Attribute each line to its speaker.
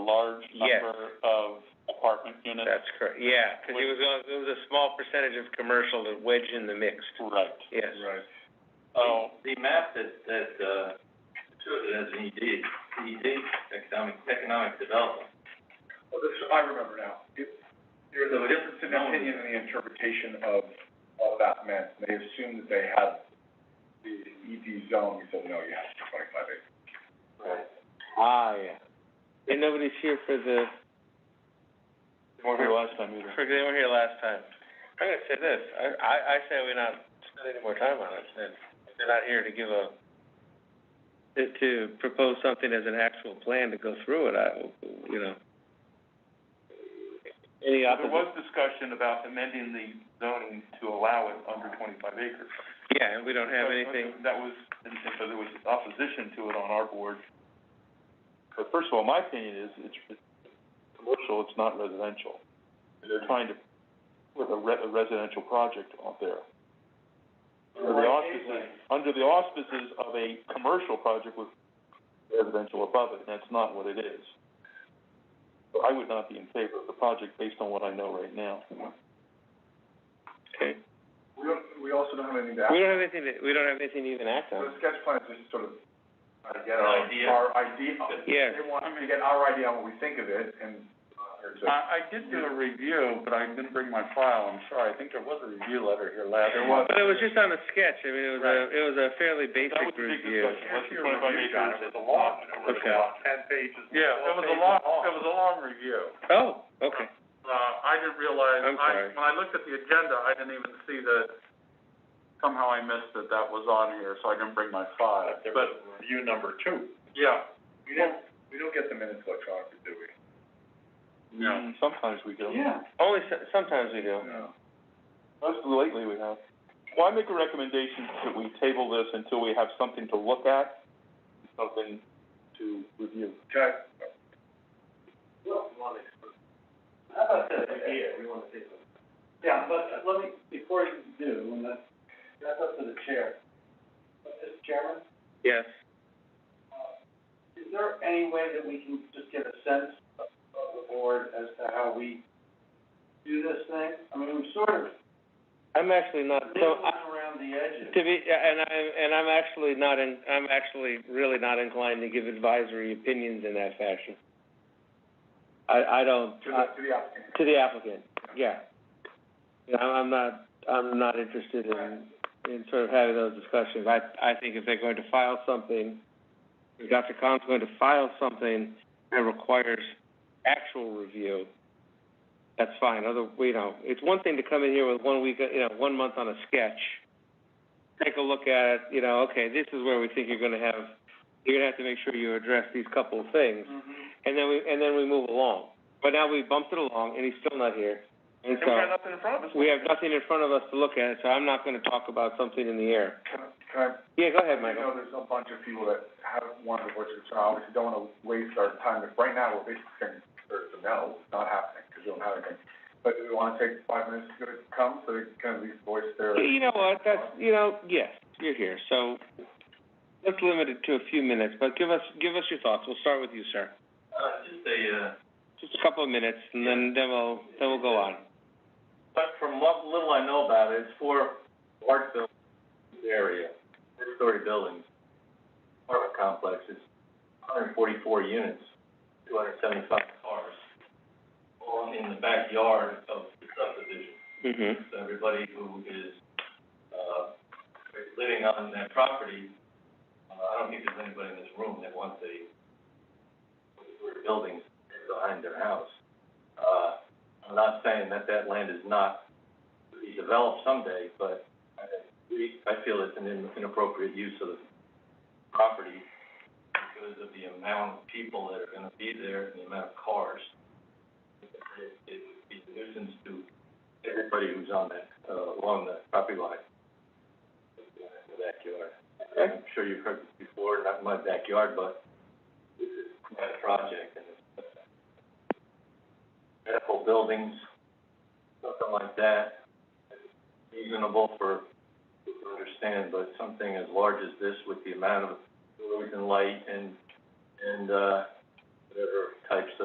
Speaker 1: large
Speaker 2: Yes.
Speaker 1: number of apartment units?
Speaker 2: That's correct, yeah, 'cause it was, a- it was a small percentage of commercial to wedge in the mix,
Speaker 1: Right.
Speaker 2: yes.
Speaker 3: Right.
Speaker 1: Oh,
Speaker 3: The map that, that, uh, showed it as an E ED, ED, economic, economic development.
Speaker 4: Well, this, I remember now. It- There's a difference in opinion and the interpretation of what that meant. They assumed that they had the ED zone. We said, no, you have to twenty-five acres.
Speaker 2: Ah, yeah. And nobody's here for the,
Speaker 1: they weren't here last time either.
Speaker 2: for, they were here last time. I'm gonna say this, I, I, I say we not spend any more time on it, and they're not here to give a, to, to propose something as an actual plan to go through it, I, you know. Any
Speaker 5: There
Speaker 2: opposite?
Speaker 5: was discussion about amending the zoning to allow it under twenty-five acres.
Speaker 2: Yeah, and we don't have anything,
Speaker 5: That was, and and so there was opposition to it on our board. But first of all, my opinion is, it's, it's commercial, it's not residential. They're trying to put a re- a residential project out there. Under the E auspices, under the auspices of a commercial project with residential above it, and that's not what it is. So I would not be in favor of the project based on what I know right now.
Speaker 2: okay.
Speaker 4: We don't, we also don't have anything to
Speaker 2: We
Speaker 4: act,
Speaker 2: don't have anything, to- we don't have anything to even act
Speaker 4: so the
Speaker 2: on.
Speaker 4: sketch plan is just sort of, I get
Speaker 3: An
Speaker 4: our,
Speaker 3: idea.
Speaker 4: our idea.
Speaker 2: Yeah.
Speaker 4: They want to get our idea on what we think of it and, uh, or to.
Speaker 5: I, I did do a review, but I didn't bring my file, I'm sorry, I think there was a review letter here last.
Speaker 4: There was.
Speaker 2: But it was just on a sketch, I mean, it was a, it was a fairly
Speaker 5: That
Speaker 2: basic
Speaker 5: was a big
Speaker 2: review.
Speaker 5: discussion, less than twenty-five acres is a lot.
Speaker 2: Okay.
Speaker 5: Ten pages. Yeah, it was a long, it was a long review.
Speaker 2: Oh, okay,
Speaker 5: Uh, I didn't realize,
Speaker 2: I'm
Speaker 5: I,
Speaker 2: sorry.
Speaker 5: when I looked at the agenda, I didn't even see that, somehow I missed that that was on here, so I didn't bring my file, but,
Speaker 3: review number two.
Speaker 5: yeah.
Speaker 4: We don't, we don't get the minutes electronically, do we?
Speaker 5: Yeah. Sometimes we do.
Speaker 2: only so- sometimes we do.
Speaker 4: No.
Speaker 5: Most lately we have. Well, I make a recommendation that we table this until we have something to look at, something to review.
Speaker 4: Okay.
Speaker 6: Yeah, but let me, before you do, and that, that's up to the chair. But Mr. Chairman,
Speaker 2: Yes,
Speaker 6: is there any way that we can just get a sense of of the board as to how we do this thing? I mean, I'm sort of
Speaker 2: I'm actually not, so,
Speaker 6: nibbling
Speaker 2: I-
Speaker 6: around the edges.
Speaker 2: to be, and I, and I'm actually not in, I'm actually really not inclined to give advisory opinions in that fashion. I, I don't,
Speaker 4: To the,
Speaker 2: I-
Speaker 4: to the applicant.
Speaker 2: to the applicant, yeah. You know, I'm not, I'm not interested in, in sort of having those discussions. I, I think if they're going to file something, if Dr. Khan's going to file something that requires actual review, that's fine. Other, you know, it's one thing to come in here with one week, you know, one month on a sketch, take a look at it, you know, okay, this is where we think you're gonna have, you're gonna have to make sure you address these couple of things. And then we, and then we move along. But now we bumped it along and he's still not here. And so,
Speaker 5: nothing in front of us.
Speaker 2: we have nothing in front of us to look at, so I'm not gonna talk about something in the air.
Speaker 4: Can, I- can I
Speaker 2: Yeah, go ahead,
Speaker 4: I
Speaker 2: Michael.
Speaker 4: know there's a bunch of people that have wanted to voice their concern, obviously don't wanna waste our time, but right now, we're basically saying, there's a no, it's not happening, because we don't have anything. But do we wanna take five minutes to come, so they can at least voice their,
Speaker 2: You know what, that's, you know, yes, you're here, so let's limit it to a few minutes, but give us, give us your thoughts. We'll start with you, sir.
Speaker 3: Uh, just a, uh,
Speaker 2: Just a couple of minutes and then, then we'll, then we'll go on.
Speaker 3: But from what little I know about it, it's for large buildings, in this area, three-story buildings, apartment complexes, hundred and forty-four units, two hundred and seventy-five cars, all in the backyard of the subdivision.
Speaker 2: Mm-hmm.
Speaker 3: So everybody who is, uh, living on that property, uh, I don't think there's anybody in this room that wants a, three buildings behind their house. Uh, I'm not saying that that land is not to be developed someday, but I, we, I feel it's an in- inappropriate use of the property because of the amount of people that are gonna be there and the amount of cars. It, it would be a nuisance to everybody who's on that, uh, along the property line. In the backyard. I'm sure you've heard this before, not in my backyard, but this is my project and it's uh, medical buildings, something like that. Reasonable for, people to understand, but something as large as this with the amount of noise and light and, and, uh, whatever types of